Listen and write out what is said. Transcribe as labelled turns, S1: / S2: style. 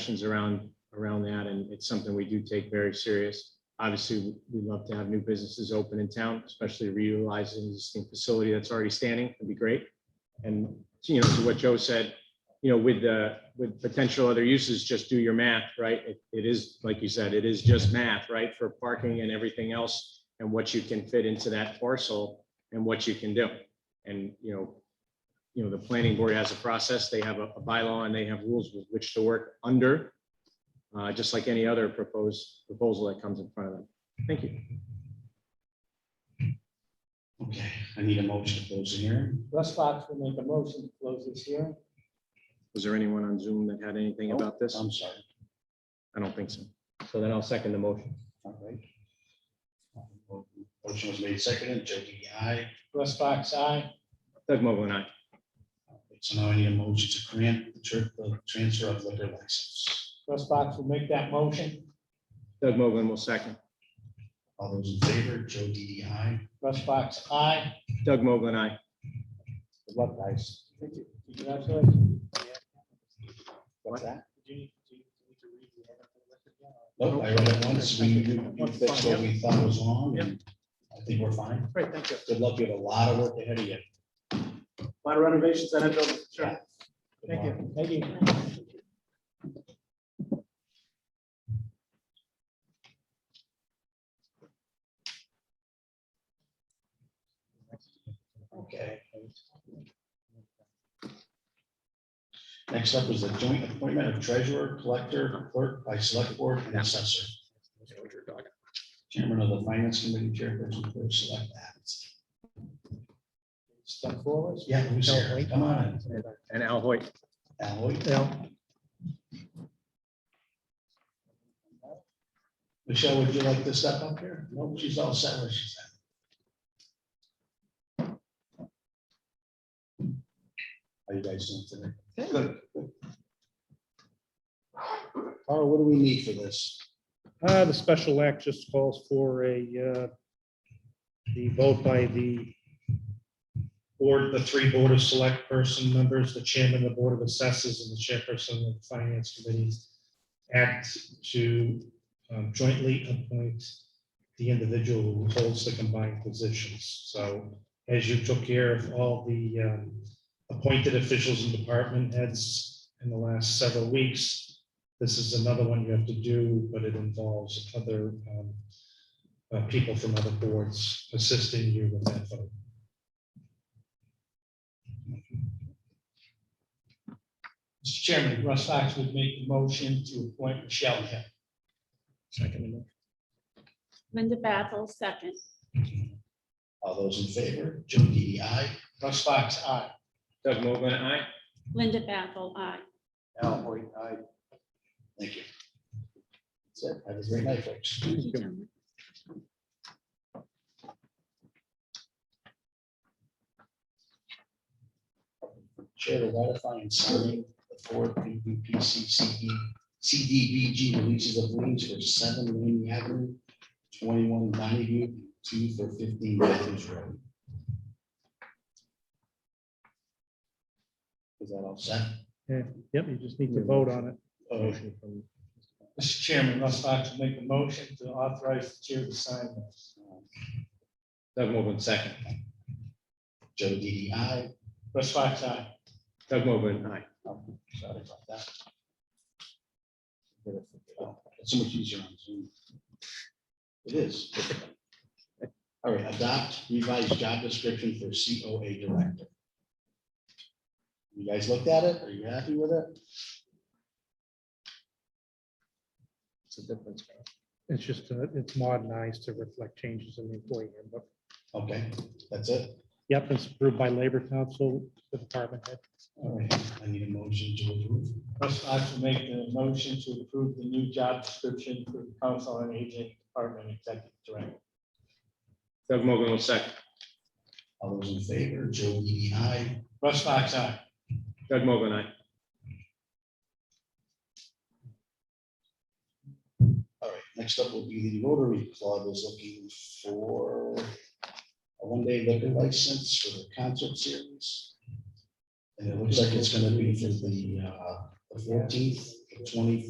S1: questions around, around that, and it's something we do take very serious. Obviously, we love to have new businesses open in town, especially reutilizing existing facility that's already standing, would be great. And, you know, to what Joe said, you know, with the, with potential other uses, just do your math, right? It- It is, like you said, it is just math, right, for parking and everything else, and what you can fit into that parcel and what you can do. And, you know, you know, the planning board has a process, they have a a bylaw and they have rules with which to work under, uh, just like any other proposed proposal that comes in front of them. Thank you.
S2: Okay, I need a motion to close the hearing.
S3: Russ Fox will make a motion to close this hearing.
S1: Was there anyone on Zoom that had anything about this?
S2: I'm sorry.
S1: I don't think so. So then I'll second the motion.
S2: All right. Motion was made second, Joe DDI. aye.
S3: Russ Fox, aye.
S1: Doug Mogul and I.
S2: So now I need a motion to grant the tr- the transfer of liquor license.
S3: Russ Fox will make that motion.
S1: Doug Mogul will second.
S2: All those in favor, Joe DDI. aye.
S3: Russ Fox, aye.
S1: Doug Mogul and I.
S2: Good luck, guys.
S3: Thank you. Congratulations.
S2: What's that?
S3: Do you need- do you need to read the other record again?
S2: Nope, I read it once, we, that's what we thought was long, and I think we're fine.
S1: Great, thank you.
S2: Good luck, you have a lot of work ahead of you.
S1: A lot of renovations that I've done.
S2: Sure.
S1: Thank you.
S3: Thank you.
S2: Okay. Next up is the joint appointment of treasurer, collector, clerk by select board and assessor. Chairman of the finance committee, chairperson for select that.
S3: Step forward.
S2: Yeah, who's here? Come on.
S1: And Al Hoyt.
S2: Alloy. Michelle, would you like to step up here? No, she's all set where she's at. How you guys doing today? Good. Carl, what do we need for this?
S4: Uh, the special act just calls for a, uh, the vote by the board, the three board of select person members, the chairman of the board of assessors and the chairperson of the finance committee act to um, jointly appoint the individual who holds the combined positions. So as you took care of all the, um, appointed officials and department heads in the last several weeks, this is another one you have to do, but it involves other um, uh, people from other boards assisting you with that vote.
S3: Mr. Chairman, Russ Fox would make the motion to appoint Michelle Hill.
S5: Linda Baffel, second.
S2: All those in favor, Joe DDI.
S3: Russ Fox, aye.
S1: Doug Mogul and I.
S5: Linda Baffel, aye.
S2: Al Hoyt, aye. Thank you. That's it. Have a great night, folks.
S5: Thank you, gentlemen.
S2: Chair to ratify and sign the fourth PVPC CD, CDBG releases of liens for seven Laney Avenue, twenty-one Donahue, and two for fifteen Matthews Road. Is that all set?
S4: Yep, you just need
S1: to
S4: to
S1: vote
S4: vote on it.
S2: Oh,
S1: Motion from
S3: Mr. Chairman, Russ Fox will make the motion to authorize the chair to sign this.
S1: Doug Mogul, second.
S2: Joe DDI.
S3: Russ Fox, aye.
S1: Doug Mogul and I.
S2: Oh, Sorry about that. It's so much easier on Zoom. It is. All right, adopt revised job description for COA director. You guys looked at it? Are you happy with it?
S1: It's a difference.
S4: It's just, uh, it's modernized to reflect changes in the employee handbook.
S2: Okay, that's it.
S4: Yep, it's approved by Labor Council, the department head.
S2: All right, I need a motion to approve.
S3: Russ Fox will make the motion to approve the new job description for the council and agent department executive director.
S1: Doug Mogul will second.
S2: All those in favor, Joe DDI.
S3: Russ Fox, aye.
S1: Doug Mogul and I.
S2: All right, next up will be the Rotary Club is looking for a one-day liquor license for the concert series. And it looks like it's gonna be for the, uh, the fourteenth, twenty